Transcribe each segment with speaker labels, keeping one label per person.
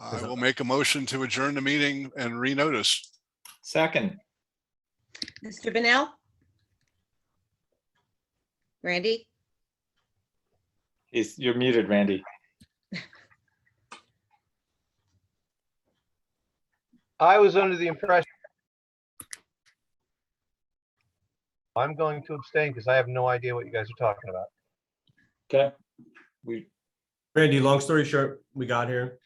Speaker 1: I will make a motion to adjourn the meeting and renotice.
Speaker 2: Second,
Speaker 3: Mr. Bennell? Randy?
Speaker 2: is, you're muted, Randy.
Speaker 4: I was under the impression. I'm going to abstain because I have no idea what you guys are talking about.
Speaker 2: Okay. We,
Speaker 5: Randy, long story short, we got here.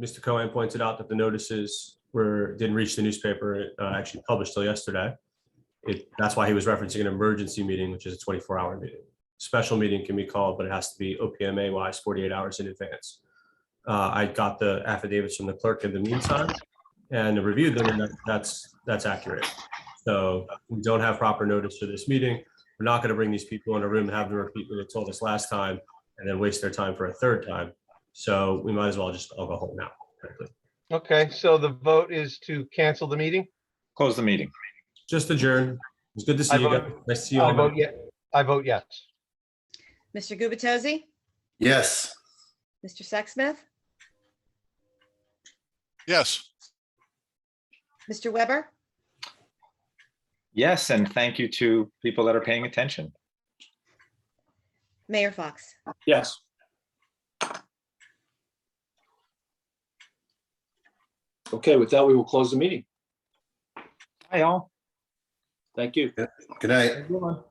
Speaker 5: Mr. Cohen pointed out that the notices were, didn't reach the newspaper, uh, actually published till yesterday. It, that's why he was referencing an emergency meeting, which is a twenty-four hour meeting. Special meeting can be called, but it has to be OPMA wise forty-eight hours in advance. Uh, I got the affidavits from the clerk in the meantime and reviewed them, and that- that's, that's accurate. So we don't have proper notice for this meeting. We're not gonna bring these people in a room and have them repeat what they told us last time and then waste their time for a third time. So we might as well just all go home now. frankly.
Speaker 4: Okay, so the vote is to cancel the meeting?
Speaker 2: close the meeting.
Speaker 5: Just adjourn. It's good to see
Speaker 4: I
Speaker 5: you
Speaker 4: vote-
Speaker 5: guys. Nice to see you
Speaker 4: I
Speaker 5: all.
Speaker 4: vote yes. I vote yes.
Speaker 3: Mr. Gubatose?
Speaker 6: Yes.
Speaker 3: Mr. Sexsmith?
Speaker 1: Yes,
Speaker 3: Mr. Weber?
Speaker 2: Yes, and thank you to people that are paying attention.
Speaker 3: Mayor Fox?
Speaker 5: Yes.
Speaker 7: Okay, with that, we will close the meeting.
Speaker 2: Hi, all.
Speaker 7: Thank you.
Speaker 6: Good night.
Speaker 7: Everyone.